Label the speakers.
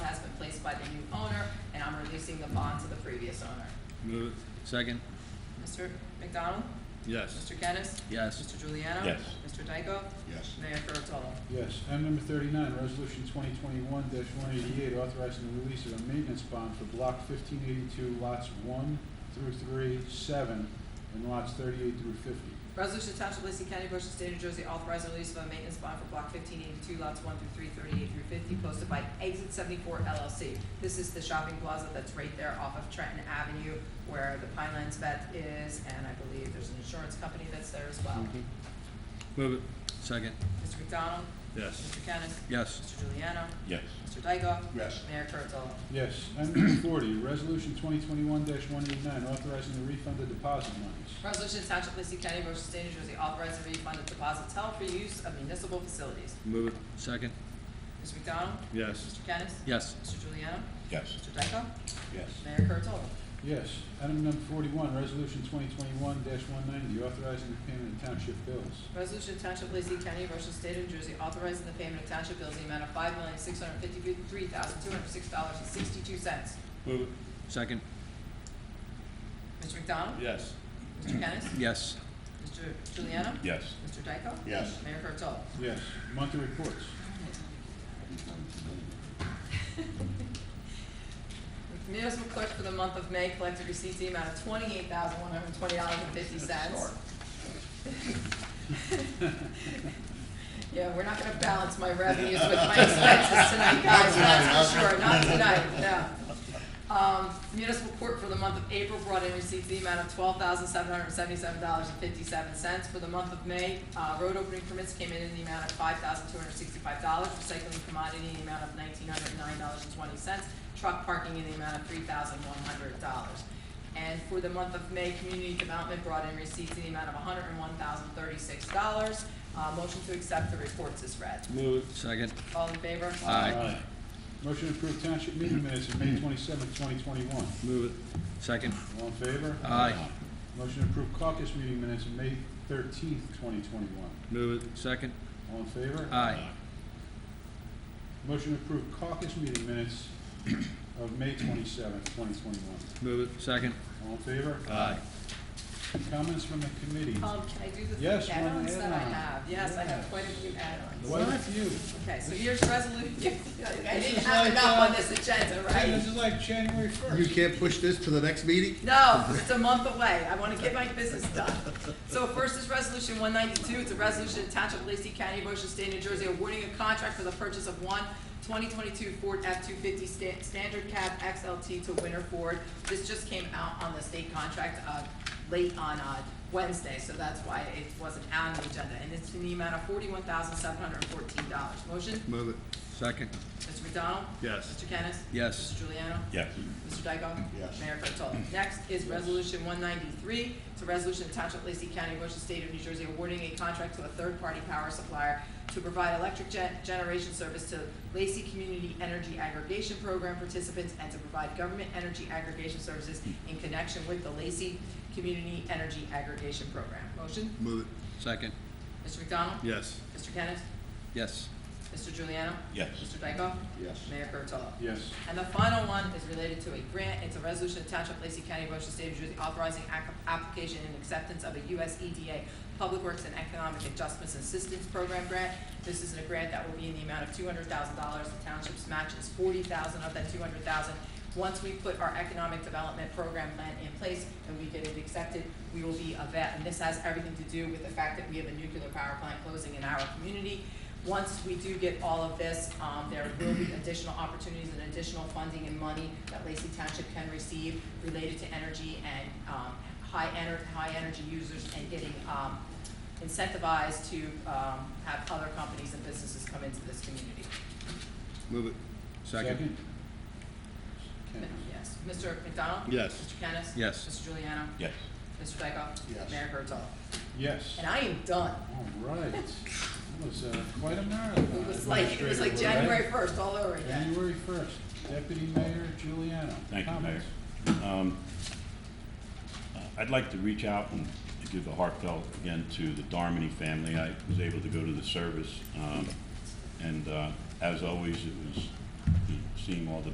Speaker 1: by the new owner, and I'm releasing the bond to the previous owner.
Speaker 2: Move it. Second?
Speaker 1: Mr. McDonald?
Speaker 2: Yes.
Speaker 1: Mr. Kennis?
Speaker 2: Yes.
Speaker 1: Mr. Juliano?
Speaker 3: Yes.
Speaker 1: Mr. Dykoff?
Speaker 3: Yes.
Speaker 1: Mayor Kurtolo?
Speaker 4: Yes. Item number thirty-nine, resolution twenty twenty-one one eighty-eight, authorizing the release of a maintenance bond for block fifteen eighty-two, lots one through three, seven, and lots thirty-eight through fifty.
Speaker 1: Resolution to Township of Lacey County, Ocean State, New Jersey, authorizing the release of a maintenance bond for block fifteen eighty-two, lots one through three, thirty-eight through fifty, posted by Exit Seventy-four LLC. This is the shopping plaza that's right there off of Trenton Avenue where the Pinelands Vet is, and I believe there's an insurance company that's there as well.
Speaker 2: Move it. Second?
Speaker 1: Mr. McDonald?
Speaker 2: Yes.
Speaker 1: Mr. Kennis?
Speaker 2: Yes.
Speaker 1: Mr. Juliano?
Speaker 3: Yes.
Speaker 1: Mr. Dykoff?
Speaker 3: Yes.
Speaker 1: Mayor Kurtolo?
Speaker 4: Yes. Item number forty, resolution twenty twenty-one one eighty-nine, authorizing the refund of deposit monies.
Speaker 1: Resolution to Township of Lacey County, Ocean State, New Jersey, authorizing refund of deposits held for use of municipal facilities.
Speaker 2: Move it. Second?
Speaker 1: Mr. McDonald?
Speaker 2: Yes.
Speaker 1: Mr. Kennis?
Speaker 2: Yes.
Speaker 1: Mr. Juliano?
Speaker 3: Yes.
Speaker 1: Mr. Dykoff?
Speaker 3: Yes.
Speaker 1: Mayor Kurtolo?
Speaker 4: Yes. Item number forty-one, resolution twenty twenty-one one ninety, authorizing the payment of township bills.
Speaker 1: Resolution to Township of Lacey County, Ocean State of New Jersey, authorizing the payment of township bills in the amount of five million, six hundred fifty-three thousand, two hundred six dollars and sixty-two cents.
Speaker 2: Move it. Second?
Speaker 1: Mr. McDonald?
Speaker 2: Yes.
Speaker 1: Mr. Kennis?
Speaker 2: Yes.
Speaker 1: Mr. Juliano?
Speaker 3: Yes.
Speaker 1: Mr. Dykoff?
Speaker 3: Yes.
Speaker 1: Mayor Kurtolo?
Speaker 4: Yes. Monthly reports.
Speaker 1: Municipal clerk for the month of May collected receipts in the amount of twenty-eight thousand, one hundred and twenty dollars and fifty cents. Yeah, we're not gonna balance my revenues with my expenses tonight, guys, that's for sure, not tonight, no. Um, municipal court for the month of April brought in receipts in the amount of twelve thousand, seven hundred and seventy-seven dollars and fifty-seven cents. For the month of May, uh, road opening permits came in in the amount of five thousand, two hundred and sixty-five dollars, recycling commodity in the amount of nineteen hundred and nine dollars and twenty cents, truck parking in the amount of three thousand, one hundred dollars. And for the month of May, community development brought in receipts in the amount of hundred and one thousand, thirty-six dollars. Uh, motion to accept the reports is read.
Speaker 2: Move it. Second?
Speaker 1: All in favor?
Speaker 2: Aye.
Speaker 4: Aye. Motion to approve township meeting minutes of May twenty-seventh, twenty twenty-one.
Speaker 2: Move it. Second?
Speaker 4: All in favor?
Speaker 2: Aye.
Speaker 4: Motion to approve caucus meeting minutes of May thirteenth, twenty twenty-one.
Speaker 2: Move it. Second?
Speaker 4: All in favor?
Speaker 2: Aye.
Speaker 4: Motion to approve caucus meeting minutes of May twenty-seventh, twenty twenty-one.
Speaker 2: Move it. Second?
Speaker 4: All in favor?
Speaker 2: Aye.
Speaker 4: Comments from the committee?
Speaker 1: Um, can I do the three
Speaker 4: Yes, one
Speaker 1: add-ons that I
Speaker 4: add-on.
Speaker 1: have? Yes, I have quite a few
Speaker 4: Quite
Speaker 1: add-ons.
Speaker 4: a few.
Speaker 1: Okay, so here's resolution, I
Speaker 4: This
Speaker 1: didn't
Speaker 4: is
Speaker 1: have
Speaker 4: like,
Speaker 1: enough
Speaker 4: uh,
Speaker 1: on this agenda,
Speaker 4: This
Speaker 1: right?
Speaker 4: is like January
Speaker 5: You
Speaker 4: first.
Speaker 5: can't push this to the next meeting?
Speaker 1: No, it's a month away, I wanna get my business done. So first is resolution one ninety-two, it's a resolution of Township of Lacey County, Ocean State, New Jersey, awarding a contract for the purchase of one 2022 Ford F-250 sta- Standard Cab XLT to Winter Ford. This just came out on the state contract, uh, late on, uh, Wednesday, so that's why it wasn't on the agenda, and it's in the amount of forty-one thousand, seven hundred and fourteen dollars. Motion,
Speaker 2: Move it. Second?
Speaker 1: Mr. McDonald?
Speaker 2: Yes.
Speaker 1: Mr. Kennis?
Speaker 2: Yes.
Speaker 1: Mr. Juliano?
Speaker 3: Yes.
Speaker 1: Mr. Dykoff?
Speaker 3: Yes.
Speaker 1: Mayor Kurtolo. Next is Resolution one ninety-three. It's a resolution of Township of Lacey County, Ocean State of New Jersey, awarding a contract to a third-party power supplier to provide electric gen- generation service to Lacey Community Energy Aggregation Program participants and to provide government energy aggregation services in connection with the Lacey Community Energy Aggregation Program. Motion?
Speaker 2: Move it. Second?
Speaker 1: Mr. McDonald?
Speaker 2: Yes.
Speaker 1: Mr. Kennis?
Speaker 2: Yes.
Speaker 1: Mr. Juliano?
Speaker 3: Yes.
Speaker 1: Mr. Dykoff?
Speaker 3: Yes.
Speaker 1: Mayor Kurtolo.
Speaker 4: Yes.
Speaker 1: And the final one is related to a grant. It's a resolution of Township of Lacey County, Ocean State, New Jersey, authorizing ac- application and acceptance of a US EDA Public Works and Economic Adjustments Assistance Program grant. This is a grant that will be in the amount of two hundred thousand dollars. The township's match is forty thousand of that two hundred thousand. Once we put our economic development program plan in place and we get it accepted, we will be a vet. And this has everything to do with the fact that we have a nuclear power plant closing in our community. Once we do get all of this, um, there will be additional opportunities and additional funding and money that Lacey Township can receive related to energy and, um, high ener, high energy users and getting, um, incentivized to, um, have other companies and businesses come into this community.
Speaker 2: Move it. Second?
Speaker 4: Second.
Speaker 1: Yes, Mr. McDonald?
Speaker 2: Yes.
Speaker 1: Mr. Kennis?
Speaker 2: Yes.
Speaker 1: Mr. Juliano?
Speaker 3: Yes.
Speaker 1: Mr. Dykoff?
Speaker 3: Yes.
Speaker 1: Mayor Kurtolo?
Speaker 4: Yes.
Speaker 1: And I am done.
Speaker 4: All right. That was uh, quite a marathon.
Speaker 1: It was like, it was like January first all over again.
Speaker 4: January first. Deputy Mayor Giuliano.
Speaker 3: Thank you, Mayor.
Speaker 4: comments?
Speaker 3: Um, uh, I'd like to reach out and give a heartfelt again to the Darmany family. I was able to go to the service, um, and uh, as always, it was seeing all the